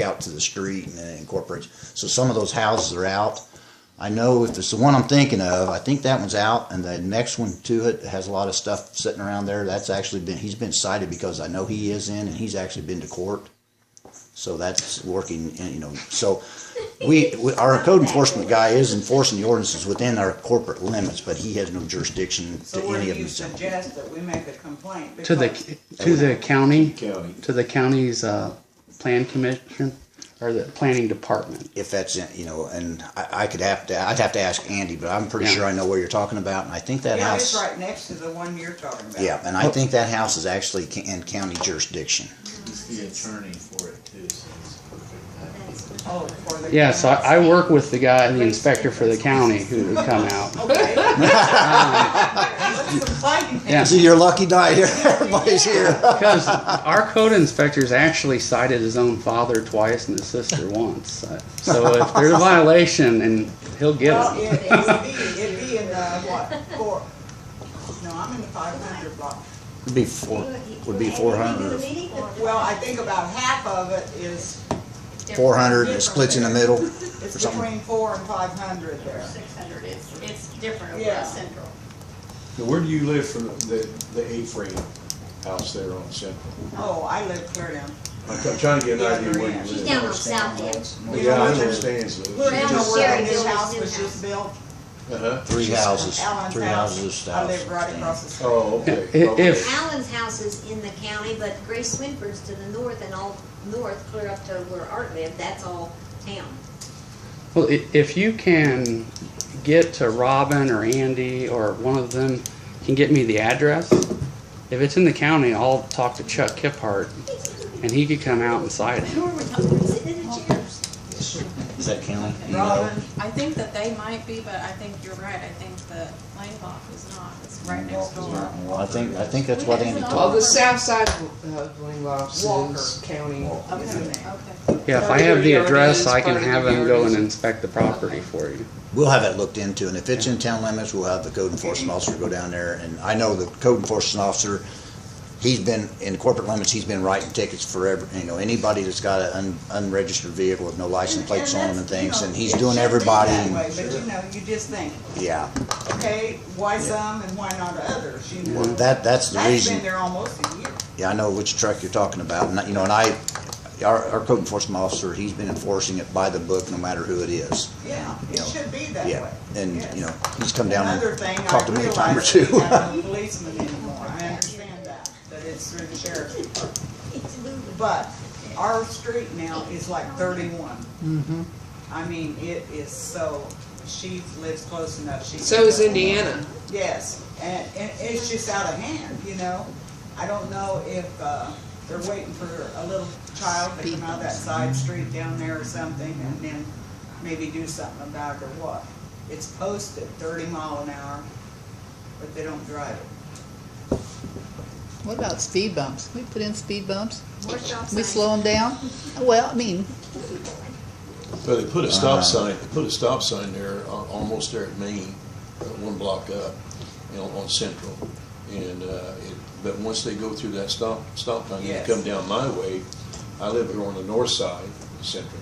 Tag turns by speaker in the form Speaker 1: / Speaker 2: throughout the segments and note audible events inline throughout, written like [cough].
Speaker 1: out to the street and then it incorporates. So some of those houses are out. I know if it's the one I'm thinking of, I think that one's out, and the next one to it has a lot of stuff sitting around there. That's actually been he's been cited because I know he is in, and he's actually been to court. So that's working, and, you know. So we, we our code enforcement guy is enforcing the ordinances within our corporate limits, but he has no jurisdiction
Speaker 2: So
Speaker 1: to
Speaker 2: what
Speaker 1: any
Speaker 2: do
Speaker 1: of
Speaker 2: you
Speaker 1: them.
Speaker 2: suggest that we make a complaint?
Speaker 3: To the,
Speaker 2: Because
Speaker 3: to the county,
Speaker 4: County.
Speaker 3: to the county's, uh, plan commission or the planning department.
Speaker 1: if that's in, you know, and I, I could have to, I'd have to ask Andy, but I'm pretty
Speaker 3: Yeah.
Speaker 1: sure I know where you're talking about, and I think that
Speaker 2: Yeah, it's
Speaker 1: house.
Speaker 2: right next to the one you're talking about.
Speaker 1: Yeah, and I think that house is actually ca- in county jurisdiction.
Speaker 4: He's the attorney for it too, so it's perfect.
Speaker 2: Oh, for the.
Speaker 3: Yeah, so I, I work with the guy, the inspector for the county who would come out.
Speaker 2: Okay. Let's complain.
Speaker 3: [laughs] Yeah.
Speaker 1: See, [laughs] you're lucky night [laughs] here, everybody's here.
Speaker 3: Because our code inspector's actually cited his own father twice and his sister once. So if there's a violation, and he'll get
Speaker 2: Well,
Speaker 3: it.
Speaker 2: it- it'd be, it'd be in the, what, four, no, I'm in the five hundred block.
Speaker 1: It'd be four, would be four hundred,
Speaker 2: Well, I think about half of it is,
Speaker 1: four hundred, it splits in the middle.
Speaker 2: it's
Speaker 1: something.
Speaker 2: between four and five hundred there.
Speaker 5: Six hundred, it's, it's different over
Speaker 2: Yeah.
Speaker 5: at Central.
Speaker 4: Now, where do you live from the, the A-frame house there on Central?
Speaker 2: Oh, I live clear down.
Speaker 4: I'm try- trying to get an idea where you live.
Speaker 6: She's down on South End.
Speaker 4: Yeah, I understand, so.
Speaker 2: Clear down to where
Speaker 6: shared
Speaker 2: this
Speaker 6: buildings
Speaker 2: house
Speaker 6: in
Speaker 2: was
Speaker 6: house.
Speaker 2: just built.
Speaker 4: Uh-huh,
Speaker 1: Three houses,
Speaker 2: Alan's
Speaker 1: three
Speaker 2: house.
Speaker 1: houses,
Speaker 2: I live right
Speaker 1: houses.
Speaker 2: across the street.
Speaker 4: oh, okay.
Speaker 3: If-
Speaker 4: okay.
Speaker 3: if-
Speaker 6: Allen's house is in the county, but Grace Swinford's to the north and all north, clear up to where Art lived, that's all town.
Speaker 3: Well, i- if you can get to Robin or Andy or one of them can get me the address, if it's in the county, I'll talk to Chuck Kiphart and he could come out and cite it.
Speaker 6: Who are we talking, sitting in the chairs?
Speaker 1: Is that county? You know?
Speaker 2: Robin,
Speaker 7: I think that they might be, but I think you're right, I think the Langbach is not, it's right next door.
Speaker 1: I think, I think that's what Andy told
Speaker 8: Well, the south side of Linglox is county.
Speaker 2: Okay,
Speaker 7: Okay.
Speaker 3: Yeah, if I have the
Speaker 8: Thirty yard
Speaker 3: address,
Speaker 8: is
Speaker 3: I can
Speaker 8: part of
Speaker 3: have
Speaker 8: the
Speaker 3: him go
Speaker 8: yard
Speaker 3: and
Speaker 8: is-
Speaker 3: inspect the property for you.
Speaker 1: We'll have it looked into, and if it's in town limits, we'll have the code enforcement officer go down there, and I know the code enforcement officer, he's been, in corporate limits, he's been writing tickets forever, you know, anybody that's got an un- unregistered vehicle with no license plates on them and
Speaker 2: that's, you
Speaker 1: things,
Speaker 2: know,
Speaker 1: and he's
Speaker 2: it
Speaker 1: doing
Speaker 2: should be
Speaker 1: everybody,
Speaker 2: that
Speaker 1: and-
Speaker 2: way, But you know, you just think,
Speaker 1: yeah.
Speaker 2: okay, why some and why not others, you know?
Speaker 1: Well, that, that's the
Speaker 2: That's been
Speaker 1: reason,
Speaker 2: there almost a year.
Speaker 1: yeah, I know which truck you're talking about, and, I- you know, and I, our, our code enforcement officer, he's been enforcing it by the book, no matter who it is.
Speaker 2: Yeah,
Speaker 1: You
Speaker 2: it
Speaker 1: know,
Speaker 2: should be that
Speaker 1: Yeah,
Speaker 2: way.
Speaker 1: and,
Speaker 2: Yes.
Speaker 1: you know, he's come down
Speaker 2: Another
Speaker 1: and
Speaker 2: thing,
Speaker 1: talked
Speaker 2: I
Speaker 1: to me a time or
Speaker 2: realize
Speaker 1: two.
Speaker 2: that we have no policemen anymore, I understand that, that it's through the sheriff's department.
Speaker 6: It's moving.
Speaker 2: But our street now is like thirty-one. I mean, it is so, she lives close enough, she. can
Speaker 8: So is
Speaker 2: go.
Speaker 8: Indiana.
Speaker 2: Yes, and, and it's just out of hand, you know? I don't know if, uh, they're waiting for a little child to come out of that side street down there or something and then maybe do something about it or what. It's posted thirty mile an hour, but they don't drive it.
Speaker 9: What about speed bumps? We put in speed bumps.
Speaker 6: More stop
Speaker 9: We
Speaker 6: signs.
Speaker 9: slow them down. Well, I mean,
Speaker 4: Well, they put a stop sign, they put a stop sign there, al- almost there at Main, uh, one block up, you know, on Central. And, uh, it, but once they go through that stop, stop sign, they
Speaker 2: Yes.
Speaker 4: come down my way. I live here on the north side of Central.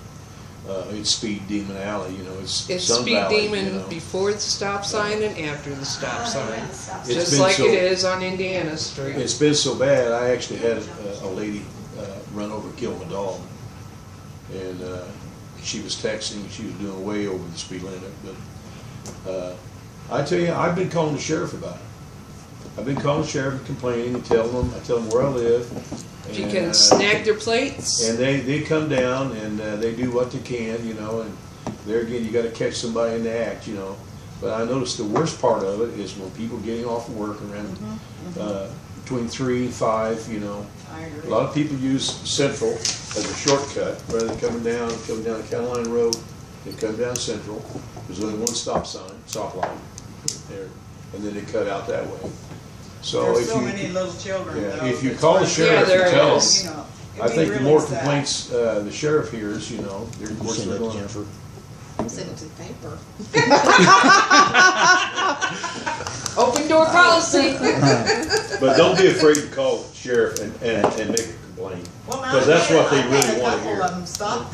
Speaker 4: Uh, it's Speed Demon Alley, you know, it's
Speaker 8: It's
Speaker 4: Sun
Speaker 8: speed
Speaker 4: Valley, you know.
Speaker 8: demon before the stop sign and after the stop sign.
Speaker 4: It's
Speaker 8: Just
Speaker 4: been
Speaker 8: like
Speaker 4: so-
Speaker 8: it is on Indiana Street.
Speaker 4: It's been so bad, I actually had a, a lady, uh, run over, kill my dog. And, uh, she was texting, she was doing way over the speed limit, but, uh, I tell you, I've been calling the sheriff about it. I've been calling the sheriff and complaining and telling them, I tell them where I live.
Speaker 8: If you
Speaker 4: and,
Speaker 8: can
Speaker 4: uh,
Speaker 8: snag their plates,
Speaker 4: And they, they come down and, uh, they do what they can, you know, and there again, you gotta catch somebody in the act, you know. But I noticed the worst part of it is when people getting off work around, uh, between three and five, you know,
Speaker 2: Mm-hmm, I
Speaker 4: a
Speaker 2: agree.
Speaker 4: lot of people use Central as a shortcut, rather than coming down, coming down Catalina Road, they come down Central, there's only one stop sign, stop line there, and then they cut out that way. So
Speaker 2: There's
Speaker 4: if
Speaker 2: so many
Speaker 4: you,
Speaker 2: little children
Speaker 4: yeah,
Speaker 2: though.
Speaker 4: if you
Speaker 2: that's
Speaker 4: call the
Speaker 2: running
Speaker 4: sheriff,
Speaker 2: around,
Speaker 8: Yeah, there
Speaker 4: you tell
Speaker 8: is.
Speaker 2: you
Speaker 4: him.
Speaker 2: know,
Speaker 4: I
Speaker 2: it'd be
Speaker 4: think the
Speaker 2: really
Speaker 4: more
Speaker 2: sad.
Speaker 4: complaints, uh, the sheriff hears, you know, they're, of
Speaker 1: You
Speaker 4: course,
Speaker 1: send
Speaker 4: they're
Speaker 1: that to
Speaker 4: going.
Speaker 1: Jennifer?
Speaker 7: Send it to the paper.
Speaker 8: open door policy.
Speaker 7: [laughs]
Speaker 4: But don't be afraid to call the sheriff and, and, and make a lane.
Speaker 2: Well, now
Speaker 4: 'Cause that's
Speaker 2: I've had-
Speaker 4: what they
Speaker 2: I've had
Speaker 4: really
Speaker 2: a
Speaker 4: wanna
Speaker 2: couple
Speaker 4: hear.
Speaker 2: of 'em stop there